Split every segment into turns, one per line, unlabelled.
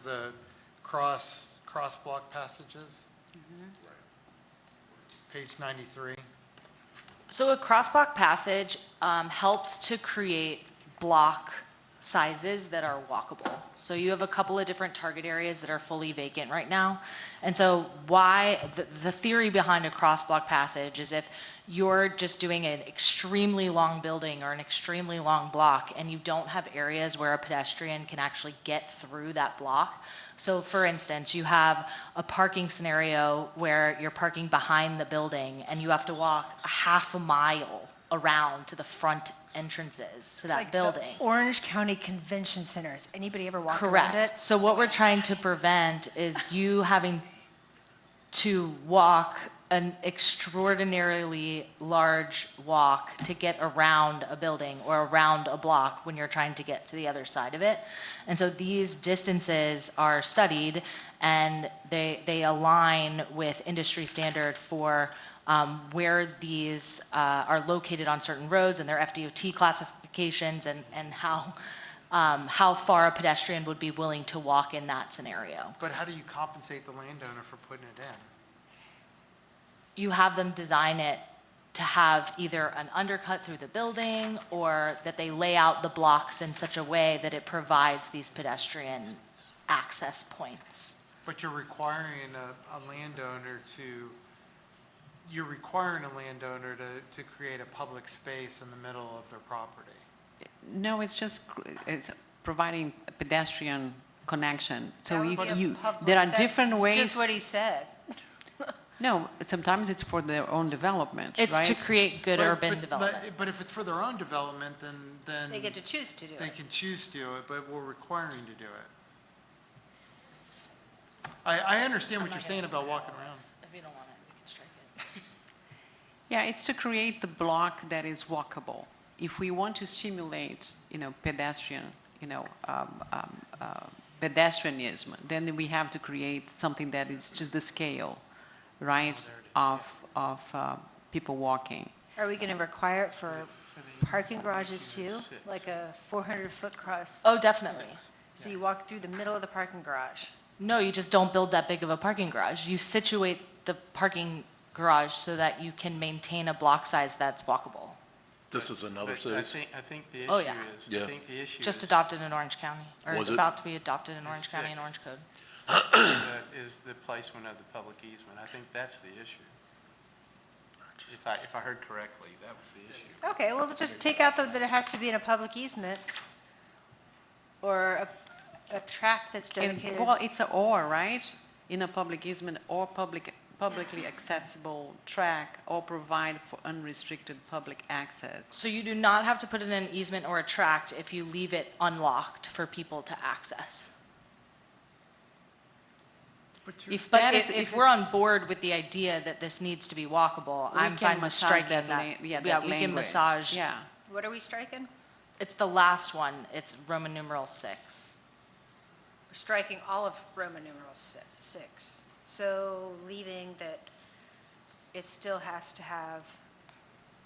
the cross, cross-block passages.
Mm-hmm.
Page 93.
So a crosswalk passage um, helps to create block sizes that are walkable. So you have a couple of different target areas that are fully vacant right now. And so why, the, the theory behind a crosswalk passage is if you're just doing an extremely long building or an extremely long block and you don't have areas where a pedestrian can actually get through that block, so for instance, you have a parking scenario where you're parking behind the building and you have to walk a half a mile around to the front entrances to that
like the
building.
Orange County Convention Center. Has anybody ever walked around it?
Correct. So what we're trying to prevent is you having to walk an extraordinarily large walk to get around a building or around a block when you're trying to get to the other side of it. And so these distances are studied and they, they align with industry standard for um, where these uh, are located on certain roads and their FDOT classifications and, and how, um, how far a pedestrian would be willing to walk in that scenario.
But how do you compensate the landowner for putting it in?
you have them design it to have either an undercut through the building or that they lay out the blocks in such a way that it provides these pedestrian access points.
But you're requiring a, a landowner to, you're requiring a landowner to, to create a public space in the middle of their property.
No, it's just, cr- it's providing a pedestrian connection. So
That
you,
would be a
you-
public-
there are
that's
different ways.
Just what he said.
No, sometimes it's for their own development,
It's to
right?
create good
But-
urban
but- but-
development.
But if it's for their own development, then, then.
They get
Mm.
to choose to do
They
it.
can choose to do it, but we're requiring to do it. I, I understand what you're saying about walking around.
If you don't want it, we can strike it.
Yeah, it's to create the block that is walkable. If we want to stimulate, you know, pedestrian, you know, um, um, uh, pedestrianism, then we have to create something that is just the scale, right, of, of uh, people walking.
Are we going to require it for parking garages too? Like a 400-foot cross?
Oh, definitely.
So you walk through the middle of the parking garage?
No, you just don't build that big of a parking garage. You situate the parking garage so that you can maintain a block size that's walkable.
This is another
But I
city?
think, I think the
Oh,
issue
yeah.
is,
Yeah.
I think the issue is.
Just adopted in Orange County, or
Was
it's
it?
about to be adopted in Orange County and
six.
Orange Code.
the- Is the placement of the public easement. I think that's the issue. If I, if I heard correctly, that was the issue.
Okay, well, just take out the- that it has to be in a public easement or a a tract that's
And-
dedicated.
Well, it's a or, right? In a public easement or public, publicly accessible track or provide for unrestricted public access.
So you do not have to put in an easement or a tract if you leave it unlocked for people to access.
If
But
that is-
if, if we're on board with the idea that this needs to be walkable,
we
I'm
can
fine with
massage
striking
that
that.
la- Yeah, that
we can
language.
massage.
Yeah,
What are we striking?
It's the last one. It's Roman numeral six.
We're striking all of Roman numeral si- six, so leaving that it still has to have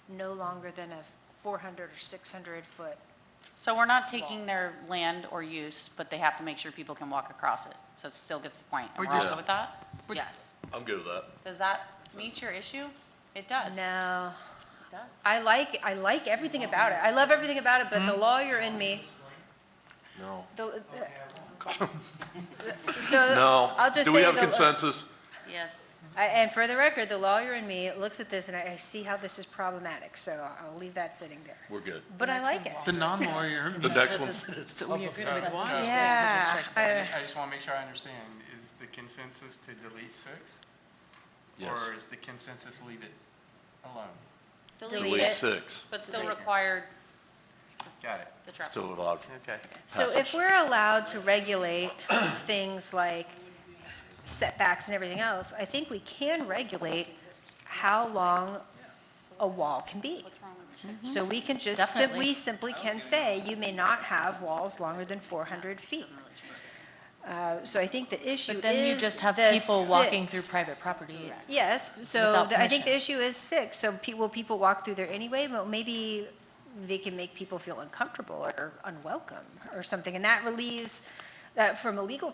no longer than a 400 or 600 foot.
So we're not taking their land or use, but they have to make sure people can walk across it. So it still gets the point.
But
And we're all
you're-
good with that? Yes.
I'm good with that.
Does that meet your issue? It does. It
No,
does.
I like, I like everything about it. I love everything about it, but the lawyer in me.
No.
the- uh, So
No.
I'll just say.
Do we have
the-
consensus?
Yes.
I- And for the record, the lawyer in me looks at this and I I see how this is problematic, so I'll leave that sitting there.
We're good.
But I like it.
The non-lawyer.
The next one,
so we agree with
So-
what?
Yeah. I-
I just want to make sure I understand. Is the consensus to delete six?
yes.
Or is the consensus leave it alone?
Delete six.
But still required
Got it.
the traffic.
Still allowed.
Okay.
So if
Passage.
we're allowed to regulate things like setbacks and everything else, I think we can regulate how long a wall can be. So we can just, sim- we
Definitely.
simply can say, you may not have walls longer than 400 feet. Uh, So I think the issue is
But then you just have
the
people walking through
six.
private property.
Yes, so
Without
the- I think the
permission.
issue is six, so pe- will people walk through there anyway? Well, maybe they can make people feel uncomfortable or unwelcome or something, and that relieves, that from a legal